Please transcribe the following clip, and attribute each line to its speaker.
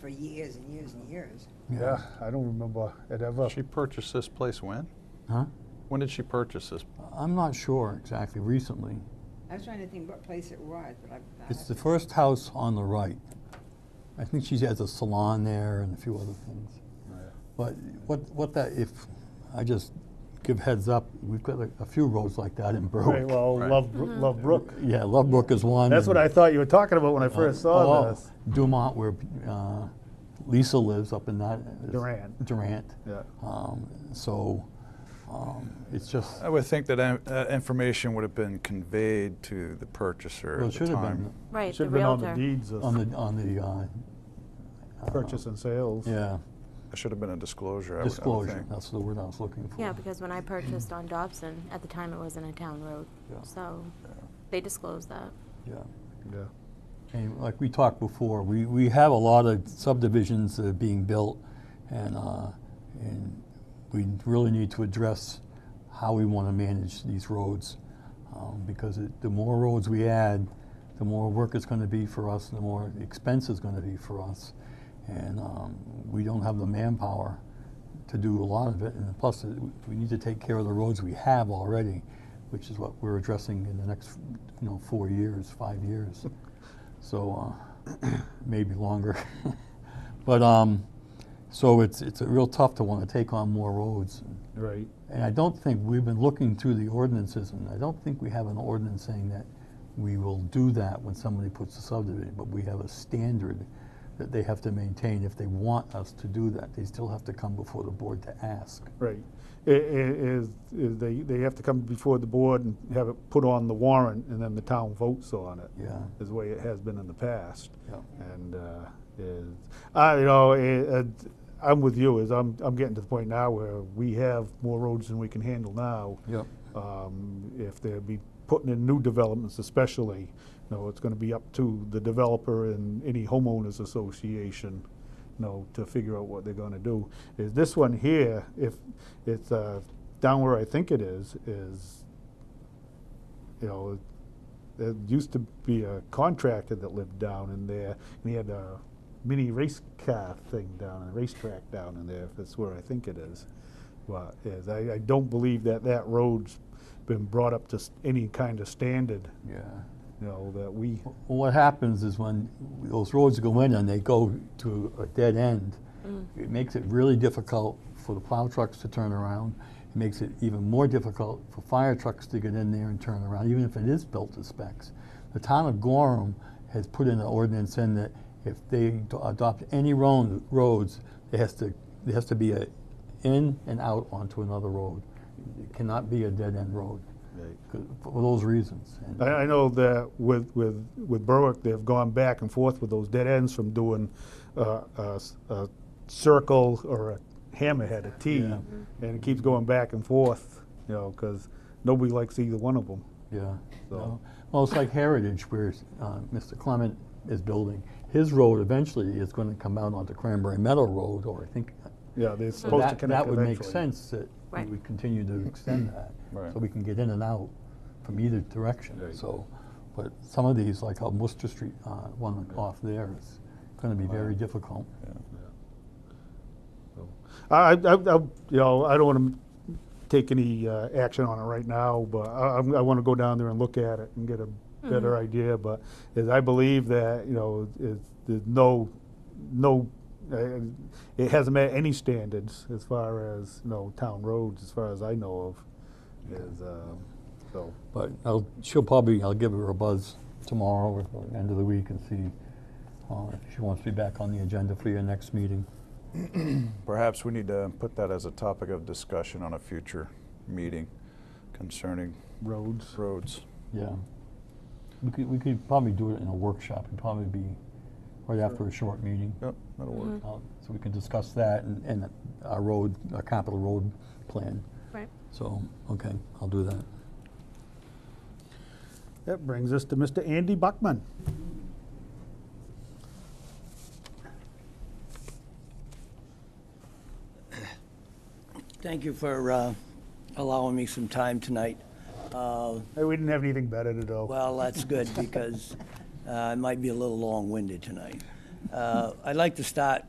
Speaker 1: for years and years and years.
Speaker 2: Yeah, I don't remember it ever.
Speaker 3: She purchased this place when?
Speaker 4: Huh?
Speaker 3: When did she purchase this?
Speaker 4: I'm not sure exactly recently.
Speaker 1: I was trying to think what place it was, but I. I-
Speaker 4: It's the first house on the right. I think she has a salon there and a few other things. But what, what that, if, I just give heads up, we've got a, a few roads like that in
Speaker 2: Okay,
Speaker 4: Berwick.
Speaker 2: well,
Speaker 3: Right.
Speaker 2: Love, Bro-
Speaker 5: Mm-hmm.
Speaker 2: Love Brook.
Speaker 4: Yeah, Lovebrook is one.
Speaker 2: That's what I thought you were talking about when I first saw
Speaker 4: oh,
Speaker 2: this.
Speaker 4: Dumont, where uh, Lisa lives up in that. is-
Speaker 2: Durant.
Speaker 4: Durant.
Speaker 2: Yeah.
Speaker 4: Um, so um, it's just,
Speaker 3: I would think that uh, that information would have been conveyed to the purchaser
Speaker 4: well, it
Speaker 3: at the
Speaker 4: should have been
Speaker 3: time.
Speaker 2: It
Speaker 5: Right,
Speaker 2: should
Speaker 5: the
Speaker 2: have been on
Speaker 5: realtor.
Speaker 2: the deeds of
Speaker 4: on the, on the, uh,
Speaker 2: purchase and sales.
Speaker 4: yeah,
Speaker 3: It should have been a disclosure, I would- I would
Speaker 4: disclosure.
Speaker 3: think.
Speaker 4: That's the word I was looking for.
Speaker 5: Yeah, because when I purchased on Dobson, at the time it wasn't a town road,
Speaker 4: Yeah.
Speaker 5: so they disclosed that.
Speaker 4: Yeah.
Speaker 2: Yeah.
Speaker 4: And like we talked before, we, we have a lot of subdivisions that are being built, and, uh, and we really need to address how we want to manage these roads. Um, because it, the more roads we add, the more work it's going to be for us, the more expense it's going to be for us. And um, we don't have the manpower to do a lot of it. And plus, it- we need to take care of the roads we have already, which is what we're addressing in the next, you know, four years, five years. So uh, maybe longer. but um, so it's it's a real tough to want to take on more roads.
Speaker 2: Right.
Speaker 4: And I don't think we've been looking through the ordinances, and I don't think we have an ordinance saying that we will do that when somebody puts a subdivision. But we have a standard that they have to maintain if they want us to do that. They still have to come before the board to ask.
Speaker 2: Right. I- i- Is, is they, they have to come before the board and have it put on the warrant, and then the town votes on it.
Speaker 4: Yeah.
Speaker 2: Is the way it has been in the past.
Speaker 4: Yeah.
Speaker 2: And, uh, is, I, you know, i- i- I'm with you, is I'm, I'm getting to the point now where we have more roads than we can handle now.
Speaker 4: Yep.
Speaker 2: Um, If they be putting in new developments especially, you know, it's gonna be up to the developer and any homeowners association, you know, to figure out what they're gonna do. Is this one here, if it's uh, down where I think it is, is, you know, there used to be a contractor that lived down in there, and he had a mini race car thing down, a racetrack down in there, if that's where I think it is. Well, is, I, I don't believe that that road's been brought up to s- any kind of standard,
Speaker 4: Yeah.
Speaker 2: you know, that we,
Speaker 4: Well, what happens is when those roads go in and they go to a dead end, it makes it really difficult for the plow trucks to turn around. It makes it even more difficult for fire trucks to get in there and turn around, even if it is built to specs. The town of Gorham has put in an ordinance in that if they do- adopt any road, roads, it has to, there has to be a in and out onto another road. It cannot be a dead end road 'cause- for those reasons. And-
Speaker 2: I, I know that with, with, with Berwick, they've gone back and forth with those dead ends from doing uh, a, s- a circle or a hammerhead, a T,
Speaker 4: Yeah.
Speaker 2: and it keeps going back and forth, you know, because nobody likes either one of them.
Speaker 4: Yeah.
Speaker 2: So-
Speaker 4: no. Well, it's like Heritage where uh, Mr. Clement is building. His road eventually is going to come out onto Cranberry Meadow Road, or I think
Speaker 2: Yeah, they're
Speaker 4: so
Speaker 2: supposed to
Speaker 4: that,
Speaker 2: connect
Speaker 4: that would make
Speaker 2: eventually.
Speaker 4: sense that we
Speaker 5: Right.
Speaker 4: would continue to extend that.
Speaker 3: Right.
Speaker 4: So we can get in and out from either direction.
Speaker 2: Right.
Speaker 4: So, but some of these, like on Worcester Street, uh, one off there is going to be very difficult.
Speaker 2: I, I, I, I- you know, I don't want to take any uh, action on it right now, but I, I'm- I want to go down there and look at it and get a better idea. But is, I believe that you know, it's, there's no, no, uh, it hasn't met any standards as far as you know town roads, as far as I know of. Is um, so
Speaker 4: But I'll, she'll probably, I'll give her a buzz tomorrow or the end of the week and see uh, if she wants to be back on the agenda for your next meeting.
Speaker 3: Perhaps we need to put that as a topic of discussion on a future meeting concerning
Speaker 2: roads.
Speaker 3: roads.
Speaker 4: Yeah. We could, we could probably do it in a workshop. It'd probably be right after a short meeting.
Speaker 3: Yep, that'll work.
Speaker 4: Uh, So we can discuss that and, and our road, our capital road plan.
Speaker 5: Right.
Speaker 4: So, okay, I'll do that.
Speaker 2: That brings us to Mr. Andy Buckman.
Speaker 6: Thank you for uh, allowing me some time tonight. Uh,
Speaker 2: Hey, we didn't have anything better to do.
Speaker 6: Well, that's good, because uh, I might be a little long-winded tonight. Uh, I'd like to start